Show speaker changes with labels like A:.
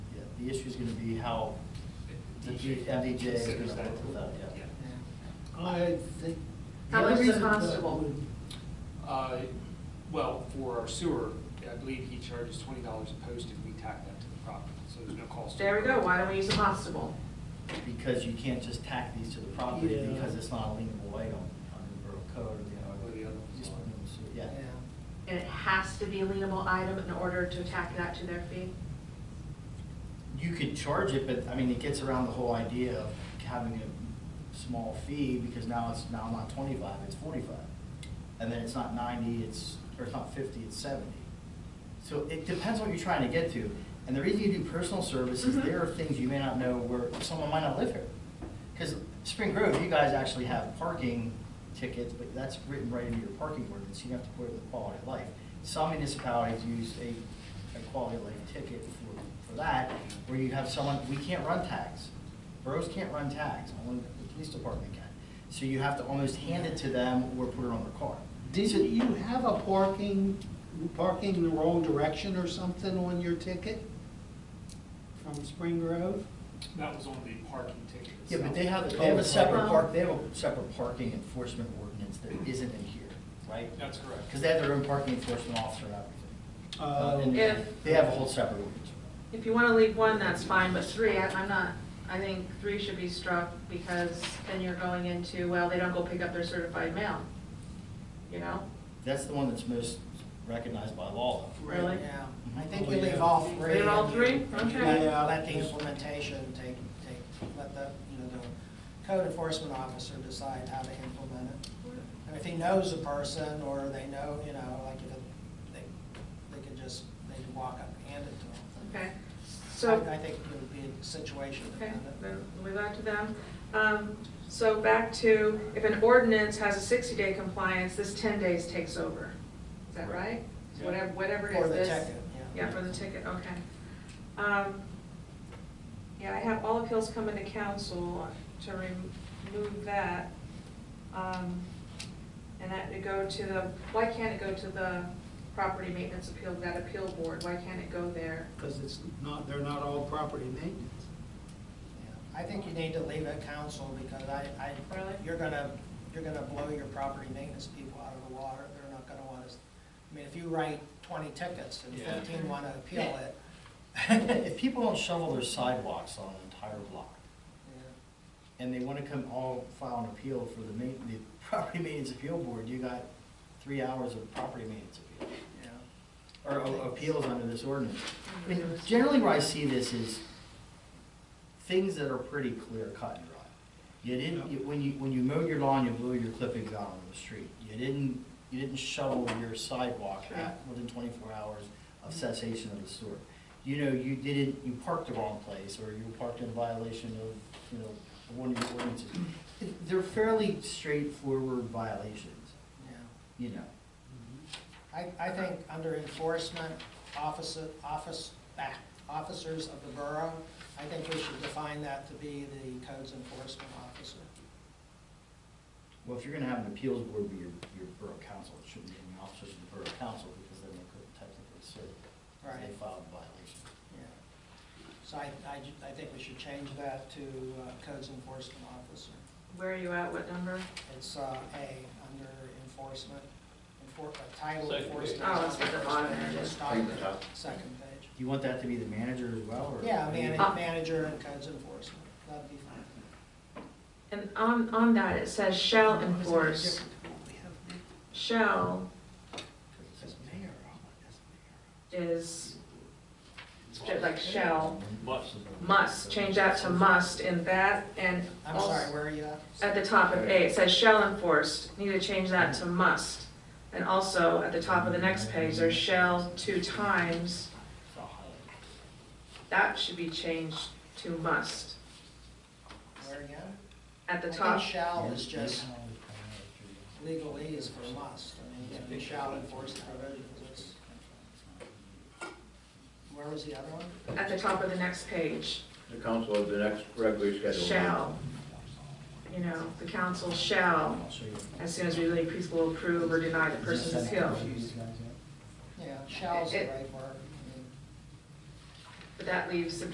A: the issue's gonna be how the
B: DJ
A: MDJ is
B: consider
A: gonna work
B: that.
A: with that, yeah.
C: I think.
D: How much is
C: the
D: a constable?
B: Uh, Well, for our sewer, I believe he charges twenty dollars a post if we tack that to the property, so there's no cost.
D: There we go, why don't we use a constable?
A: Because you can't just tack these to the property
C: Yeah.
A: because it's not a lienable item under the borough code, you know.
B: Or the other ones
A: Just
B: are.
A: remove, so, Yeah.
D: And it has to be a lienable item in order to tack that to their fee?
A: You could charge it, but I mean, it gets around the whole idea of having a small fee because now it's now not twenty-five, it's forty-five. And then it's not ninety, it's, or it's not fifty, it's seventy. So it depends what you're trying to get to. And the reason you do personal service is
D: Mhm.
A: there are things you may not know where someone might not live here. Because Spring Grove, you guys actually have parking tickets, but that's written right into your parking ordinance. You have to put it with quality of life. Some municipalities use a, a quality of life ticket for, for that, where you have someone, we can't run tags. Boroughs can't run tags, only the police department can. So you have to almost hand it to them or put it on their car.
C: Didn't you have a parking, parking in the wrong direction or something on your ticket from Spring Grove?
B: That was on the parking ticket.
A: Yeah, but
B: itself.
A: they have, they have a separate
D: Um,
A: park, they have a separate parking enforcement ordinance that isn't in here, right?
B: That's correct.
A: Because they have their own parking enforcement officer and everything. Uh, and
C: Uh,
D: If-
A: They have a whole separate ordinance.
D: If you want to leave one, that's fine, but three, I- I'm not, I think three should be struck because then you're going into, well, they don't go pick up their certified mail, you know?
A: That's the one that's most recognized by law.
D: Really?
E: Yeah, I
A: Mhm.
E: think
C: Oh,
E: we
C: yeah.
E: leave all three.
D: Leave all three?
E: And
D: Okay.
E: let- Let the implementation take, take, let the, you know, the code enforcement officer decide how to implement it. And if he knows a person, or they know, you know, like, if it- they, they could just, they could walk up and hand it to them.
D: Okay, so.
E: I I think it would be situation
D: Okay,
E: dependent.
D: then we'll go back to them. Um, So back to, if an ordinance has a 60-day compliance, this 10 days takes over. Is that right? So Whatever, whatever it is.
E: For the
D: this-
E: ticket, yeah.
D: Yeah, for the ticket, okay. Um, Yeah, I have all appeals coming to council to remove that. Um, And that to go to the, why can't it go to the property maintenance appeal, that appeal board? Why can't it go there?
C: Because it's not, they're not all property maintenance.
E: Yeah. I think you need to leave it council, because I, I,
D: Really?
E: you're gonna, you're gonna blow your property maintenance people out of the water, they're not gonna wanna, s- I mean, if you write twenty tickets and
B: Yeah.
E: fifteen wanna appeal it,
A: If people don't shovel their sidewalks on an entire block,
E: yeah,
A: and they want to come all file an appeal for the ma, the property maintenance appeal board, you got three hours of property maintenance appeal.
E: yeah.
A: or a- appeals under this ordinance. I mean, generally where I see this is things that are pretty clear cut and dry. You didn't, you- when you, when you mowed your lawn, you blew your clippings out on the street. You didn't, you didn't shovel your sidewalk at, within twenty-four hours of cessation of the sewer. You know, you didn't, you parked the wrong place, or you parked in violation of, you know, one of your ordinances. They're fairly straightforward violations,
E: yeah.
A: you know.
E: Mm-hmm. I, I think under enforcement officer, office, ah, officers of the borough, I think we should define that to be the codes enforcement officer.
A: Well, if you're gonna have an appeals board be your, your borough council, it shouldn't be any officers of the borough council, because then they couldn't technically serve. because They
E: Right.
A: filed a violation.
E: Yeah. So I, I, ju- I think we should change that to uh, codes enforcement officer.
D: Where are you at? What number?
E: It's, uh, A, under enforcement, enfor, uh, title
B: Second
E: enforcement.
D: page. Oh, it's at the bottom.
E: Just stop there, second page.
A: Do you want that to be the manager as well, or?
E: Yeah, man,
D: Ah.
E: manager and codes enforcement, that'd be fine.
D: And on, on that, it says shall enforce,
A: oh
D: shall is, like shall,
F: Must.
D: must, change that to must in that, and
E: I'm sorry,
D: also,
E: where are you at?
D: at the top of A, it says shall enforce, need to change that to must. And also, at the top of the next page, there's shall two times,
A: I'll highlight
D: that should be changed to must.
E: Where again?
D: At the
E: I
D: top,
E: think shall is just legally is for must, I mean, yeah, we shall enforce the provisions, it's, where was the other one?
D: at the top of the next page,
F: The council of the next regularly scheduled. meeting.
D: shall, you know, the council shall
A: it. I'll show you.
D: As soon as we leave, please will approve or deny the person's appeal.
E: Yeah, shall's the
D: It-
E: right word. I mean,
D: But that leaves the